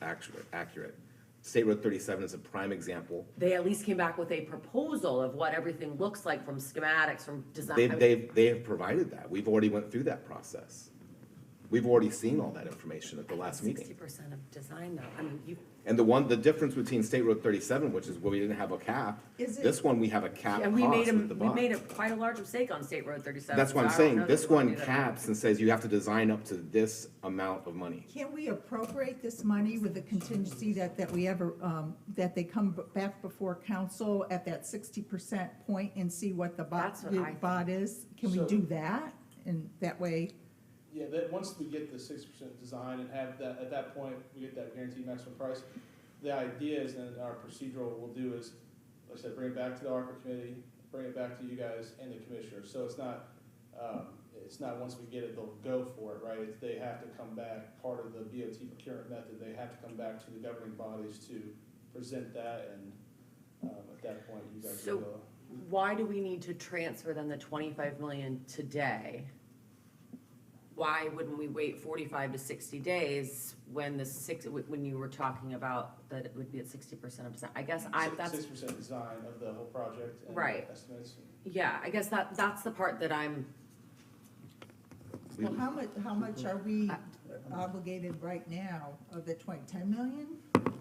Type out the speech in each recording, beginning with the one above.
accurate, accurate. State Road thirty-seven is a prime example. They at least came back with a proposal of what everything looks like from schematics, from design. They've, they've, they have provided that. We've already went through that process. We've already seen all that information at the last Sixty meeting. percent of design though, I mean, you, And the one, the difference between State Road thirty-seven, which is where we didn't have a cap, Is it- this one, we have a cap and we made cost a, with the we bond. made a quite a large mistake on State Road thirty-seven. That's what so I'm I don't know saying. that This we wanna one do that. caps and says you have to design up to this amount of money. Can we appropriate this money with the contingency that, that we ever, um, that they come b- back before council at that sixty percent point and see what the bot, That's what I the think. bot is? Can we So- do that? And that way, Yeah, that, once we get the six percent design and have that, at that point, we get that guaranteed maximum price, the idea is then our procedural we'll do is, like I said, bring it back to the ARPA committee, bring it back to you guys and the commissioner, so it's not, um, it's not once we get it, they'll go for it, right? It's, they have to come back, part of the BOT procurement method, they have to come back to the governing bodies to present that and, um, at that point, you guys So- will. uh, Why do we need to transfer then the twenty-five million today? Why wouldn't we wait forty-five to sixty days when the six, when you were talking about that it would be at sixty percent of design? I guess I, that's Six percent design of the whole project and Right. estimates. Yeah, I guess that, that's the part that I'm, well, how much, how much are we I- obligated right now of the twenty, ten million?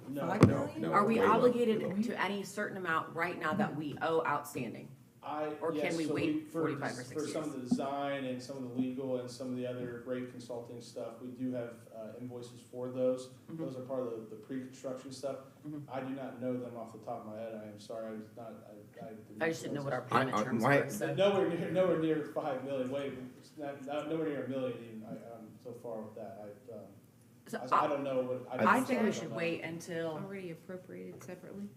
No, Five No, million? no. are we way low, way low. obligated to any certain amount right now that we owe outstanding? I, Or yes, can we so wait for 45 or des- 60 For some days? of the design and some of the legal and some of the other rate consulting stuff, we do have uh, invoices for those. Mhm. Those are part of the, the pre-construction stuff. Mhm. I do not know them off the top of my head, I am sorry, I was not, I, I. I just didn't know what our I- payment I- terms my- were, so. Nowhere near, nowhere near five million, wait, it's not, not- nowhere near a million even, I, I'm so far with that, I, um, So I- I I, don't know what. I'm I think sorry, we I should don't wait until, Already appropriated separately? know.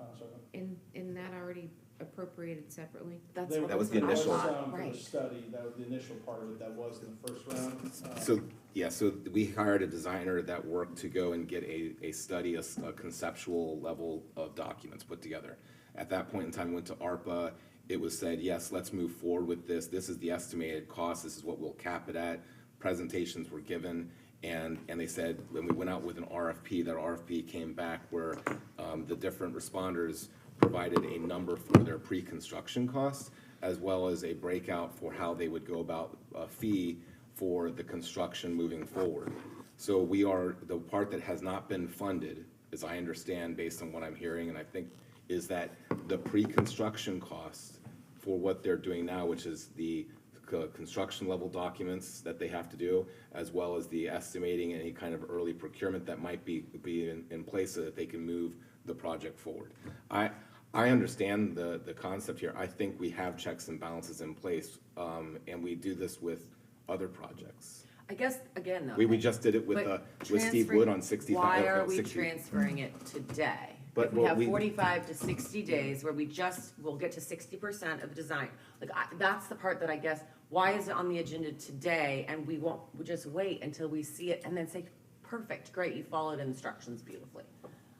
Uh, sorry. In, in that already appropriated separately? that's. There That was the there initial. some for the Right. Study, that was the initial part of it, that was in the first round. Um, So, yeah, so we hired a designer that worked to go and get a, a study, a, s- a conceptual level of documents put together. At that point in time, went to ARPA, it was said, yes, let's move forward with this, this is the estimated cost, this is what we'll cap it at. Presentations were given, and, and they said, when we went out with an RFP, that RFP came back where, um, the different responders provided a number for their pre-construction costs, as well as a breakout for how they would go about a fee for the construction moving forward. So we are, the part that has not been funded, as I understand, based on what I'm hearing, and I think, is that the pre-construction costs for what they're doing now, which is the co- construction level documents that they have to do, as well as the estimating any kind of early procurement that might be, be in, in place so that they can move the project forward. I, I understand the, the concept here. I think we have checks and balances in place, um, and we do this with other projects. I guess, again, though. We, we just did it with, but uh, with Steve transferring- Wood on uh, sixty. Why are we transferring it today? But If we what have we- forty-five to sixty days where we just, we'll get to sixty percent of the design. Like, I, that's the part that I guess, why is it on the agenda today and we won't, we just wait until we see it and then say, perfect, great, you followed instructions beautifully.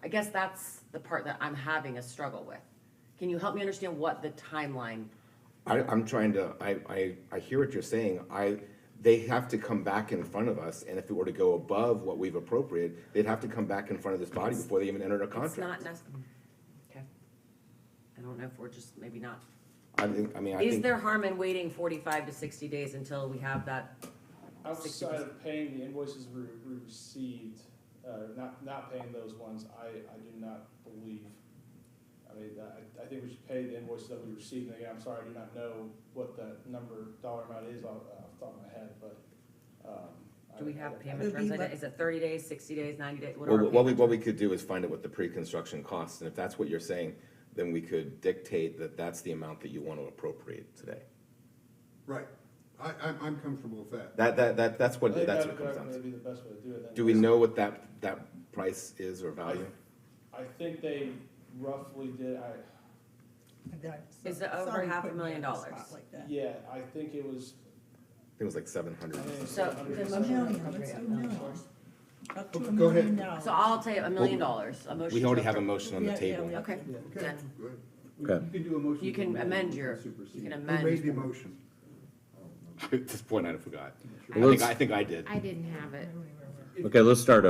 I guess that's the part that I'm having a struggle with. Can you help me understand what the timeline I, I'm trying to, I, I, I hear what you're saying. I, they have to come back in front of us, and if it were to go above what we've appropriated, they'd have to come back in front of this body before they even entered a It's contract. not necessary. Okay. I don't know if we're just, maybe not. I think, I mean, I Is think, there harm in waiting forty-five to sixty days until we have that? Outside of paying the invoices we we received, uh, not, not paying those ones, I, I do not believe. I mean, I, I think we should pay the invoices that we received, and again, I'm sorry, I do not know what that number, dollar amount is off, off the top of my head, but, um. I- Do we I- have I- payment Would be terms? I let- don't- Is it thirty days, sixty days, ninety days? What well, are our what we, payment? what we could do is find out what the pre-construction costs, and if that's what you're saying, then we could dictate that that's the amount that you want to appropriate today. Right, I, I'm, I'm comfortable with that. That, that, that, that's I what, think that's that what it would comes down definitely to. be the best way to do it. then. Do we know what that, that price is or value? I think they roughly did, I, Is it over half a million dollars? yeah, I think it was, I think it was like seven I hundred. think it was So, 100 the and A million, something. let's do a million. Up to a Go ahead. million dollars. So I'll tell you, a million Well, dollars, a motion. We to already have a appro- motion on the Yeah, yeah, table. yeah. Okay, Okay, then, go ahead. You Okay. can do a motion. You to can amend amend and your- supersede. you can Who made amend. the motion? At this point, I forgot. I Let's- think, I think I did. I didn't have it. If- Okay, let's start